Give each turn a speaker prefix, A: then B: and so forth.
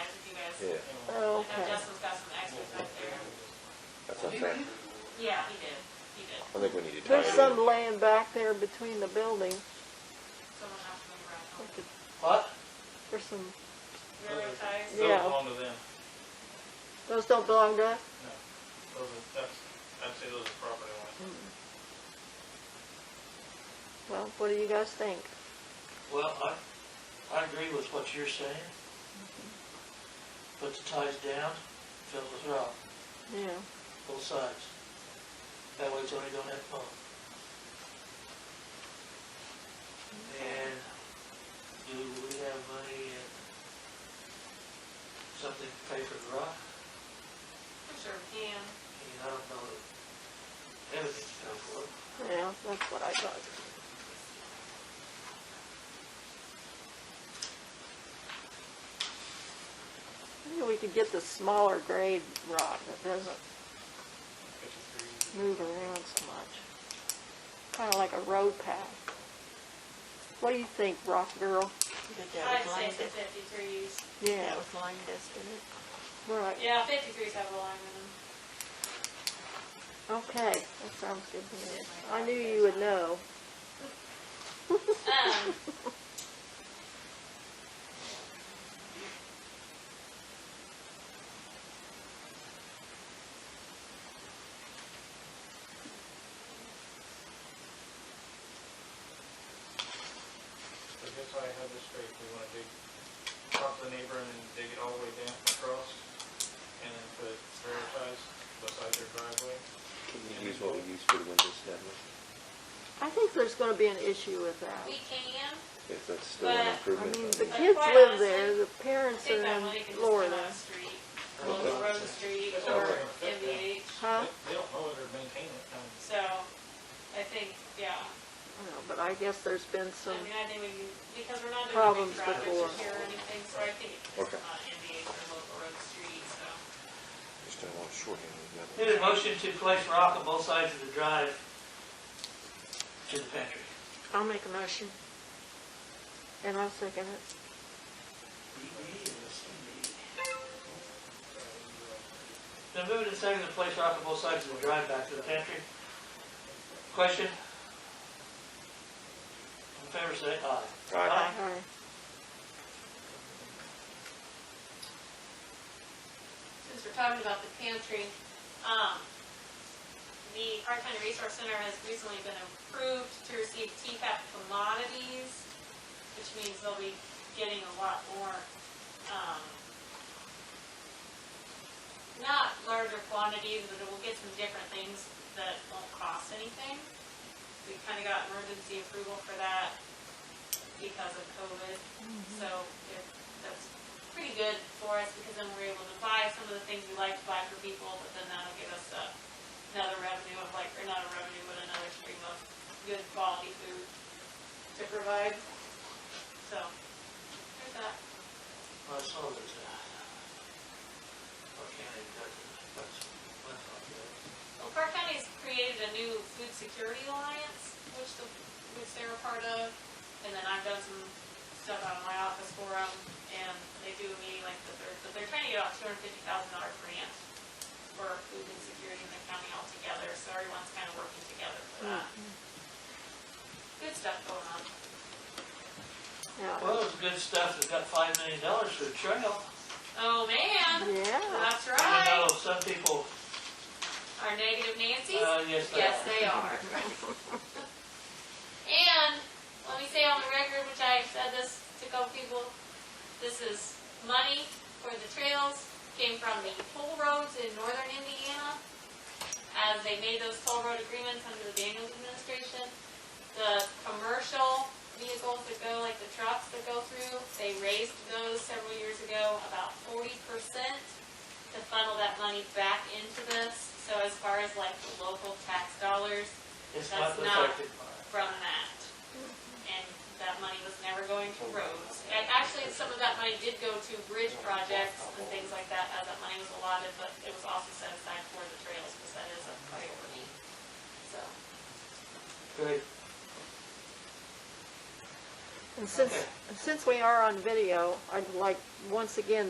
A: Yeah.
B: Oh,
C: I know
B: okay.
C: Justin's got some extras back there.
A: That's what I'm saying.
C: Yeah, he did, he did.
A: I think we need to tie
B: There's
A: it
B: some
A: in.
B: land back there between the building.
C: Someone has to move around.
B: We could-
D: What?
B: There's some,
C: Railroad ties?
D: Those
B: Yeah.
D: belong to them.
B: those don't belong to us?
D: Those are, that's, I'd say those are property lines.
B: Mm. Well, what do you guys think?
E: Well, I, I agree with what you're saying. Put the ties down, fill with rock,
B: Yeah,
E: both sides. That way it's only gonna have pump. And do we have money and something to pay for the rock?
C: I'm sure we can.
E: I mean, I don't know that everything's paid for.
B: yeah, that's what I thought. Maybe we could get the smaller grade rock that doesn't
D: Fifty-three.
B: move around so much. Kind of like a road path. What do you think, Rock Girl?
C: I'd say the fifty-threes.
B: Yeah,
F: line dust in it.
B: right,
C: Yeah, fifty-threes have a line in them.
B: okay, that sounds good to me. I knew you would know.
C: Um.
D: So I guess I have this straight, we wanna dig, talk to the neighbor and then dig it all the way down across, and then put railroad ties beside their driveway.
A: Can we use what we use for the windows down there?
B: I think there's gonna be an issue with that.
C: We can,
A: If that's still an
C: But, I
B: I
A: improvement.
B: mean,
A: then-
B: the kids live there, the
C: I
B: parents
C: think
B: are
C: that money can
B: in
C: just come
B: Florida,
C: on the street, local road street or MVH,
B: huh?
D: They- They don't know it or maintain it, um,
C: so I think, yeah.
B: No, But I guess there's been
C: I
B: some,
C: mean, I think we can, because we're not doing
B: Problems
C: big projects
B: before.
C: this year or anything, so I think it's
A: Okay.
C: not MVH or local road street, so.
A: Just don't want to shorthand it. yeah.
E: Need a motion to place rock on both sides of the drive to the pantry.
B: I'll make a motion. And I'll second it.
E: Then moving to second to place rock on both sides of the drive back to the pantry. Question? In favor, say aye.
A: All right,
B: Aye.
C: Since we're talking about the pantry, um, the Park County Resource Center has recently been approved to receive TCAP commodities, which means they'll be getting a lot more, um, not larger quantities, but we'll get some different things that won't cost anything. We kind of got emergency approval for that because of COVID, so if- that's pretty good for us because then we're able to buy some of the things we like to buy for people, but then that'll give us uh, another revenue of like, or not a revenue, but another stream of good quality food to provide. So, there's that.
E: I saw there's a, Park County, that's, that's not good.
C: Well, Park County's created a new food security alliance, which the, which they're a part of, and then I've done some stuff out of my office for them, and they do a meeting like the third, but they're trying to get about two hundred fifty thousand dollar grant for food insecurity in the county altogether, so everyone's kind of working together for that. Good stuff going on.
B: Yeah.
E: Well, it's good stuff, it's got five million dollars for the trail.
C: Oh, man,
B: Yeah,
C: that's
E: I
C: right,
E: know some people,
C: our negative Nancy's.
E: uh, yes, they are.
C: Yes, they are. And, let me say on the record, which I said this to a couple people, this is money for the trails, came from the toll roads in northern Indiana. As they made those toll road agreements under the Daniels administration, the commercial vehicles that go, like the trucks that go through, they raised those several years ago about forty percent to funnel that money back into this. So as far as like the local tax dollars,
E: It's
C: That's
E: not
C: not-
E: reflected.
C: from that. And that money was never going to roads. And actually, some of that money did go to bridge projects and things like that, as that money was allotted, but it was also set aside for the trails, because that is a priority. So,
E: Great.
B: and since, and since we are on video, I'd like, once again,